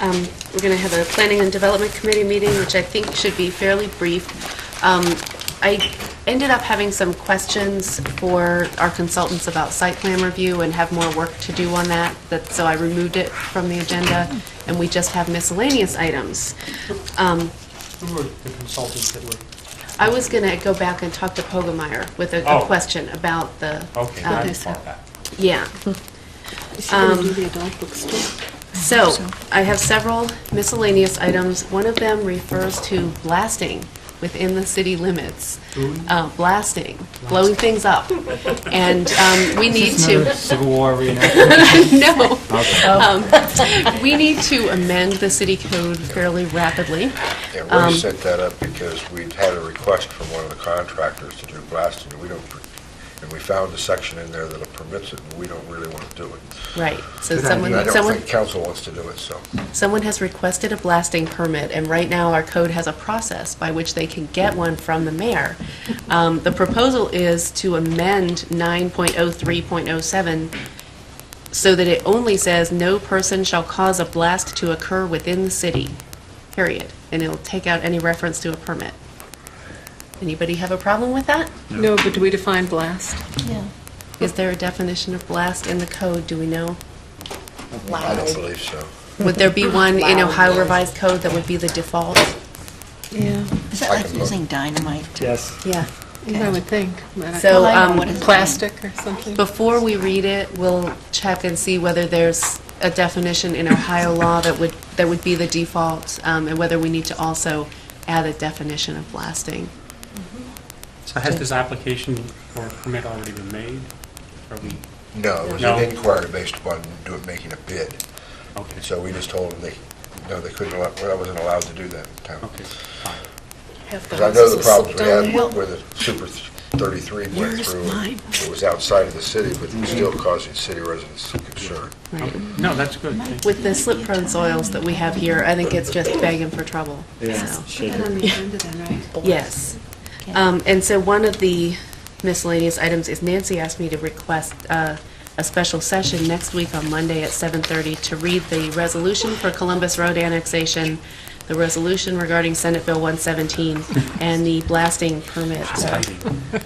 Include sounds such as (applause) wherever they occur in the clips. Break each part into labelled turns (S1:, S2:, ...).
S1: Um, We're going to have a Planning and Development Committee meeting, which I think should be fairly brief. Um, I ended up having some questions for our consultants about site plan review and have more work to do on that, that- so I removed it from the agenda, and we just have miscellaneous items. Um,
S2: Who were the consultants that were?
S1: I was going to go back and talk to Pogemeyer with a a
S2: Oh.
S1: question about the...
S2: Okay,
S3: Oh,
S1: um,
S2: that's far back.
S1: Yeah.
S4: Is she going to do the adult books too?
S1: So, I have several miscellaneous items. One of them refers to blasting within the city limits. Uh, Blasting, blowing things up. And um, we need to,
S5: Civil War
S1: (laughs)
S5: reenactment.
S1: no, Um,
S5: Okay.
S1: we need to amend the city code fairly rapidly.
S6: Yeah,
S1: Um,
S6: we set that up because we'd had a request from one of the contractors to do blasting, and we don't, and we found a section in there that permits it, and we don't really want to do it.
S1: Right, so
S6: And I
S1: someone,
S6: don't
S1: someone,
S6: think council wants to do it, so.
S1: someone has requested a blasting permit, and right now our code has a process by which they can get one from the mayor. Um, The proposal is to amend 9.03.07 so that it only says, "No person shall cause a blast to occur within the city," period. And it'll take out any reference to a permit. Anybody have a problem with that?
S4: No, but do we define blast?
S1: Is there a definition of blast in the code, do we know?
S6: I don't believe so.
S1: Would there be one in Ohio revised code that would be the default?
S4: Yeah,
S3: Is that
S6: I
S3: like
S6: can vote.
S3: using dynamite?
S5: Yes.
S1: Yeah.
S4: I would think. but I-
S1: So,
S3: Well, I know
S1: um,
S3: what it's-
S4: Plastic or something?
S1: Before we read it, we'll check and see whether there's a definition in Ohio law that would, that would be the default, um, and whether we need to also add a definition of blasting.
S2: So has this application or permit already been made? Are we,
S6: No, it was
S2: No.
S6: an inquiry based upon doing, making a bid,
S2: okay,
S6: and so we just told them they, no, they couldn't, allow- well, I wasn't allowed to do that in town.
S2: okay, fine.
S6: Because I know the problems we had where the Super 33 went through, and it was outside of the city, but still causing city residents some concern.
S2: Okay. No, that's good. Thank you.
S1: With the slip prone soils that we have here, I think it's just begging for trouble. so.
S4: On the agenda then, right?
S1: Yes. Um, And so one of the miscellaneous items is Nancy asked me to request uh, a special session next week on Monday at 7:30 to read the resolution for Columbus Road annexation, the resolution regarding Senate Bill 117, and the blasting permit. uh,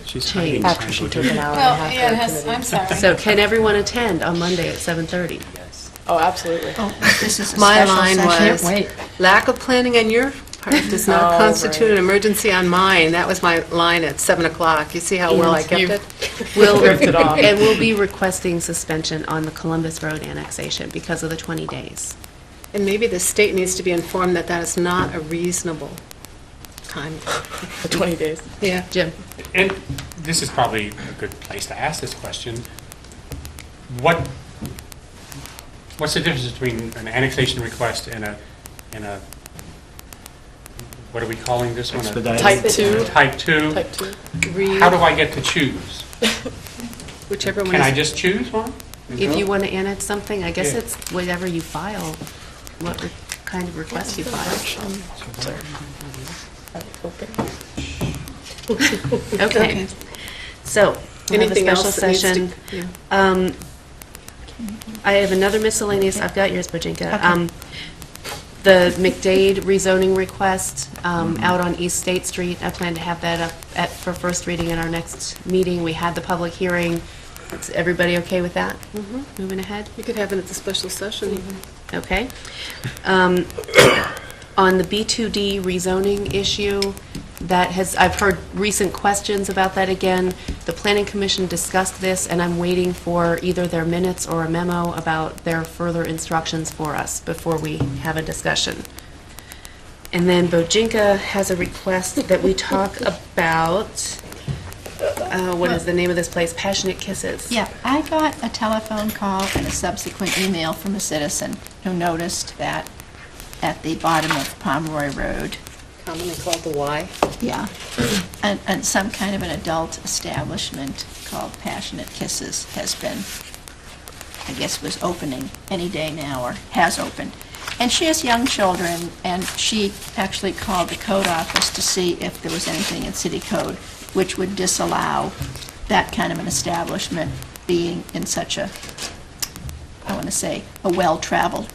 S2: She's
S1: Change.
S2: hiding
S1: After
S2: something.
S7: Well, yeah, it has, I'm sorry.
S1: So can everyone attend on Monday at 7:30?
S7: Oh, absolutely.
S3: This is a
S4: My
S3: special
S4: line was,
S3: session.
S4: lack of planning on your part (laughs) does not
S7: Oh,
S4: constitute
S7: right.
S4: an emergency on mine. That was my line at 7 o'clock. You see how well I kept
S7: You-
S4: it?
S1: We'll,
S7: (laughs) Ripped it off.
S1: and we'll be requesting suspension on the Columbus Road annexation because of the 20 days.
S4: And maybe the state needs to be informed that that is not a reasonable (laughs) time.
S7: 20 days.
S4: Yeah.
S1: Jim?
S2: And this is probably a good place to ask this question. What, what's the difference between an annexation request and a, and a, what are we calling this one? A-
S5: Expedited.
S7: Type two.
S2: Type 2?
S7: Type 2.
S2: How do I get to choose?
S4: Whichever one
S2: Can I
S4: is,
S2: just choose one?
S1: If you want to annex something, I guess
S2: Yeah.
S1: it's whatever you file, what re- kind of request you file. Okay,
S4: Okay.
S1: so we have a
S4: anything
S1: special
S4: else that needs to...
S1: session.
S4: yeah.
S1: Um, I have another miscellaneous, I've got yours, Bojinka. Um, The McDade rezoning request um, out on East State Street, I plan to have that up at, for first reading in our next meeting. We had the public hearing. Is everybody okay with that? Moving ahead?
S4: You could have it at the special session even.
S1: Okay. Um, On the B2D rezoning issue, that has, I've heard recent questions about that again. The Planning Commission discussed this, and I'm waiting for either their minutes or a memo about their further instructions for us before we have a discussion. And then Bojinka has a request that we talk about, uh, what is the name of this place? Passionate Kisses.
S3: Yeah, I got a telephone call and a subsequent email from a citizen who noticed that at the bottom of Pomeroy Road,
S4: commonly called the Y.
S3: yeah, and, and some kind of an adult establishment called Passionate Kisses has been, I guess was opening any day now, or has opened. And she has young children, and she actually called the code office to see if there was anything in city code which would disallow that kind of an establishment being in such a, I want to say, a well-traveled